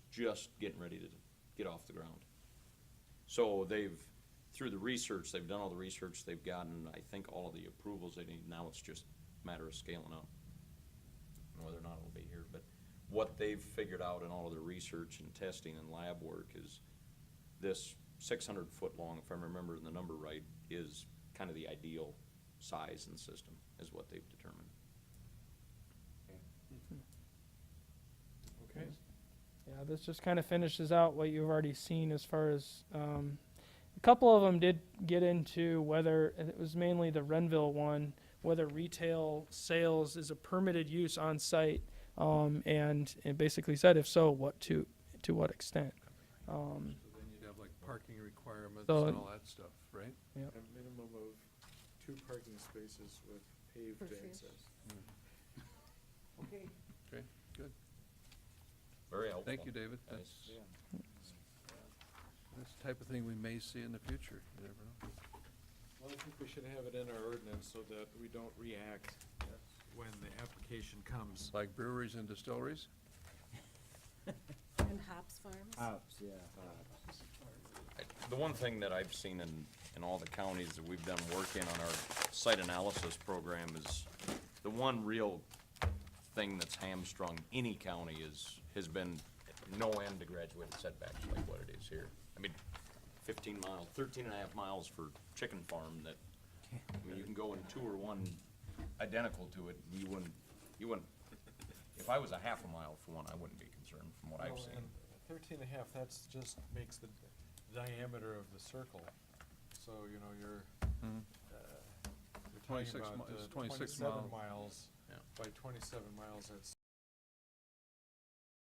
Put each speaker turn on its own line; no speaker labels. just getting ready to get off the ground. So they've, through the research, they've done all the research, they've gotten, I think, all of the approvals they need, now it's just a matter of scaling up. And Whether or not it'll be here, but what they've figured out in all of their research and testing and lab work is this six hundred foot long, if I'm remembering the number right, is kind of the ideal size and system, is what they've determined.
Okay.
Yeah, this just kind of finishes out what you've already seen as far as um, a couple of them did get into whether and it was mainly the Renville one, whether retail sales is a permitted use on site, um, and it basically said if so, what to to what extent. Um,
So then you'd have like parking requirements
So-
and all that stuff, right?
A minimum of two parking spaces with paved
Perfect.
access.
Okay.
Okay, good.
Very helpful.
Thank you, David. That's,
Nice.
Yeah.
that's the type of thing we may see in the future. You never know.
Well, I think we should have it in our ordinance so that we don't react when the application comes.
It's like breweries and distilleries.
And hops farms?
Hops, yeah.
I- The one thing that I've seen in, in all the counties that we've done work in on our site analysis program is the one real thing that's hamstrung any county is, has been no end to graduated setbacks like what it is here. I mean, fifteen miles, thirteen and a half miles for chicken farm that, I mean, you can go and tour one identical to it, you wouldn't, you wouldn't, if I was a half a mile for one, I wouldn't be concerned from what I've
Well,
seen.
Oh, and Thirteen and a half, that's just makes the diameter of the circle. So, you know, you're,
Mm-hmm.
uh, you're talking
26
about
mi-
uh,
it's 26
twenty-seven
mile.
miles.
Yeah.
By twenty-seven miles, that's